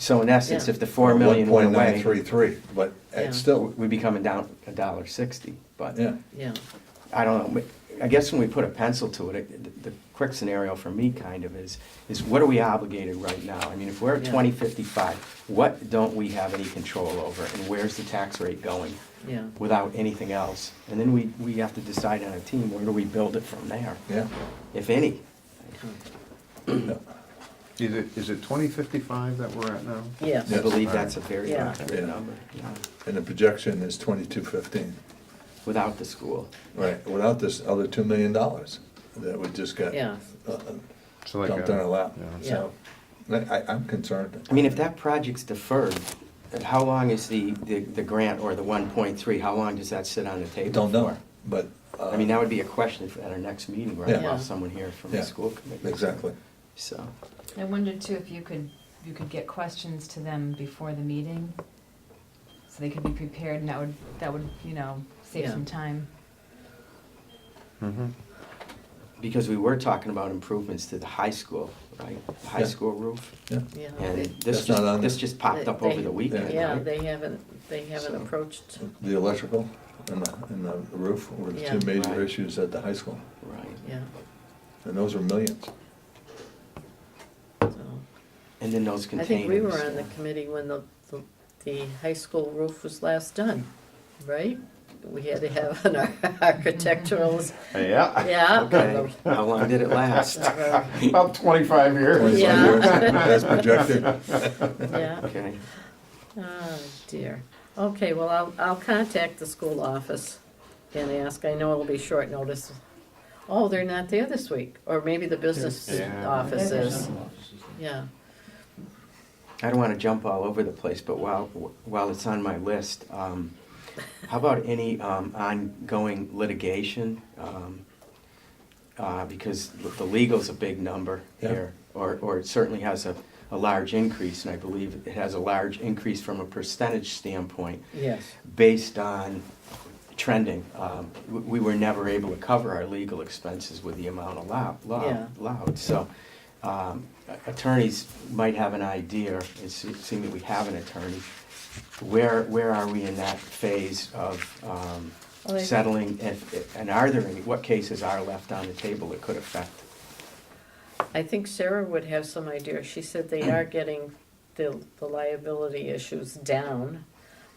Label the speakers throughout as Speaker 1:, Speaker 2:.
Speaker 1: So in essence,
Speaker 2: Yeah.
Speaker 1: if the four million went away,
Speaker 3: 1.933, but
Speaker 2: Yeah.
Speaker 3: it's still,
Speaker 1: we'd be coming down a dollar sixty, but
Speaker 3: yeah.
Speaker 2: Yeah,
Speaker 1: I don't know. I guess when we put a pencil to it, it, the the quick scenario for me kind of is, is what are we obligated right now? I mean, if we're at
Speaker 2: Yeah.
Speaker 1: twenty fifty-five, what don't we have any control over and where's the tax rate going
Speaker 2: yeah,
Speaker 1: without anything else? And then we, we have to decide on a team, where do we build it from there,
Speaker 3: Yeah.
Speaker 1: if any?
Speaker 4: Is it, is it twenty fifty-five that we're at now?
Speaker 2: yes,
Speaker 1: I
Speaker 3: Yeah.
Speaker 1: believe that's a very
Speaker 2: Yeah.
Speaker 1: accurate
Speaker 3: Yeah.
Speaker 1: number, yeah,
Speaker 3: And the projection is 2215,
Speaker 1: without the school.
Speaker 3: right, without this other $2 million that we just got
Speaker 2: yeah,
Speaker 3: uh,
Speaker 4: So like
Speaker 3: dumped in
Speaker 4: a-
Speaker 3: our lap.
Speaker 4: yeah.
Speaker 3: So, I, I- I'm concerned.
Speaker 1: I mean, if that project's deferred, then how long is the, the, the grant or the one point three, how long does that sit on the table for?
Speaker 3: Don't know, but. uh,
Speaker 1: I mean, that would be a question for- at our next meeting, where
Speaker 3: Yeah.
Speaker 1: I'll have someone here from the
Speaker 3: Yeah.
Speaker 1: school committee.
Speaker 3: Exactly.
Speaker 1: So,
Speaker 5: I wondered too if you could, you could get questions to them before the meeting, so they could be prepared, and that would, that would, you know, save
Speaker 2: Yeah.
Speaker 5: some time.
Speaker 4: Mhm.
Speaker 1: because we were talking about improvements to the high school, right? The High
Speaker 3: Yeah.
Speaker 1: school roof,
Speaker 3: Yeah,
Speaker 2: yeah.
Speaker 1: and
Speaker 2: They-
Speaker 1: this
Speaker 3: That's not
Speaker 1: just,
Speaker 3: on
Speaker 1: this
Speaker 3: there.
Speaker 1: just popped up
Speaker 2: they-
Speaker 1: over the weekend,
Speaker 2: Yeah,
Speaker 1: right?
Speaker 2: they haven't, they haven't
Speaker 3: So-
Speaker 2: approached,
Speaker 3: the electrical and the, and the roof were the two
Speaker 2: Yeah.
Speaker 3: major
Speaker 1: Right.
Speaker 3: issues at the high school,
Speaker 1: Right,
Speaker 2: yeah,
Speaker 3: and those are millions.
Speaker 2: so.
Speaker 1: and then those
Speaker 2: I
Speaker 1: containers.
Speaker 2: think we were on the committee when the, the- the high school roof was last done, right? We had to have an ar- architectural,
Speaker 4: Yeah.
Speaker 2: yeah.
Speaker 1: Okay, how long did it last?
Speaker 2: Uh,
Speaker 4: About twenty-five years.
Speaker 3: 25
Speaker 2: Yeah.
Speaker 3: years, That's projected.
Speaker 2: Yeah.
Speaker 1: Okay,
Speaker 2: Oh, dear. Okay, well, I'll, I'll contact the school office and ask. I know it'll be short notice. Oh, they're not there this week, or maybe the business
Speaker 4: Yeah.
Speaker 2: office is. Yeah,
Speaker 1: I don't wanna jump all over the place, but while, while it's on my list, um, how about any, um, ongoing litigation? Um, Uh, because the legal's a big number
Speaker 3: Yeah.
Speaker 1: here, or, or it certainly has a, a large increase, and I believe it has a large increase from a percentage standpoint
Speaker 2: yes,
Speaker 1: based on trending. Um, we- We were never able to cover our legal expenses with the amount allowed,
Speaker 2: Yeah.
Speaker 1: allowed, so um, attorneys might have an idea, it se- seeing that we have an attorney, where, where are we in that phase of um,
Speaker 2: Well, I-
Speaker 1: settling, if- and are there any, what cases are left on the table that could affect?
Speaker 2: I think Sarah would have some idea. She said they are getting the, the liability issues down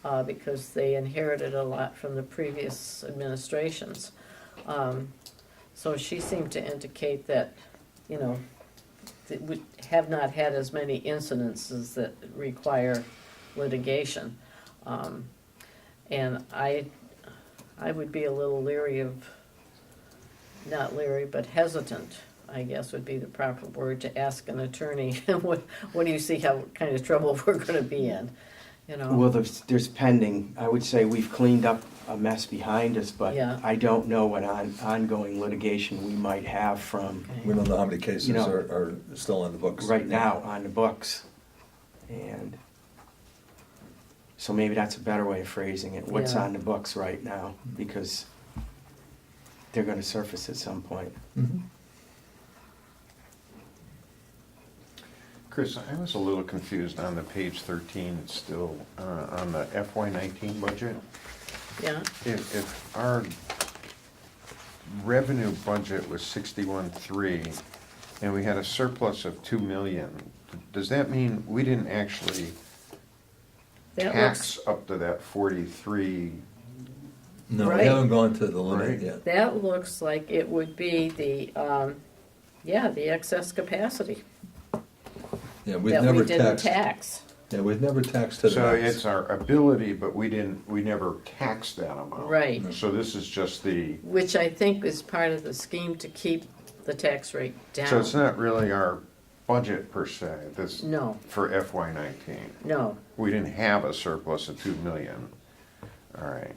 Speaker 2: uh, because they inherited a lot from the previous administrations. Um, So she seemed to indicate that, you know, that we have not had as many incidences that require litigation. Um, And I, I would be a little leery of, not leery, but hesitant, I guess would be the proper word, to ask an attorney, what, what do you see, how, what kind of trouble we're gonna be in, you know?
Speaker 1: Well, there's, there's pending, I would say we've cleaned up a mess behind us, but
Speaker 2: Yeah.
Speaker 1: I don't know what on, ongoing litigation we might have from
Speaker 2: Okay.
Speaker 3: We don't know how many cases
Speaker 1: You know-
Speaker 3: are, are still on the books.
Speaker 1: right now on the books. And so maybe that's a better way of phrasing it, what's
Speaker 2: Yeah.
Speaker 1: on the books right now, because they're gonna surface at some point.
Speaker 3: Mhm.
Speaker 4: Chris, I was a little confused on the page thirteen, it's still, uh, on the FY nineteen budget.
Speaker 2: Yeah,
Speaker 4: If, if our revenue budget was sixty-one three, and we had a surplus of two million, does that mean we didn't actually
Speaker 2: that looks,
Speaker 4: tax up to that forty-three?
Speaker 3: No, we
Speaker 2: Right.
Speaker 3: haven't gone to the limit
Speaker 4: Right.
Speaker 3: yet.
Speaker 2: that looks like it would be the, um, yeah, the excess capacity
Speaker 3: Yeah, we've
Speaker 2: that we
Speaker 3: never
Speaker 2: didn't
Speaker 3: taxed.
Speaker 2: tax.
Speaker 3: Yeah, we've never taxed to the
Speaker 4: So
Speaker 3: max.
Speaker 4: it's our ability, but we didn't, we never taxed that amount.
Speaker 2: Right,
Speaker 4: So this is just the,
Speaker 2: which I think is part of the scheme to keep the tax rate
Speaker 4: so it's
Speaker 2: down.
Speaker 4: not really our budget per se, this,
Speaker 2: No,
Speaker 4: for FY nineteen.
Speaker 2: no,
Speaker 4: We didn't have a surplus of two million. All right.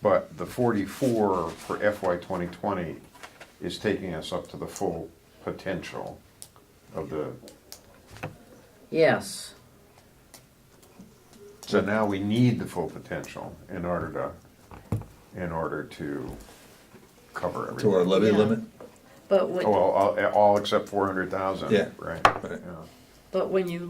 Speaker 4: But the forty-four for FY twenty twenty is taking us up to the full potential of the,
Speaker 2: yes,
Speaker 4: so now we need the full potential in order to, in order to cover everything.
Speaker 3: To our levy
Speaker 2: Yeah.
Speaker 3: limit?
Speaker 2: but
Speaker 4: Oh,
Speaker 2: what,
Speaker 4: Well, all, all except four hundred thousand,
Speaker 3: Yeah.
Speaker 4: right?
Speaker 3: Right.
Speaker 4: yeah.
Speaker 2: But when you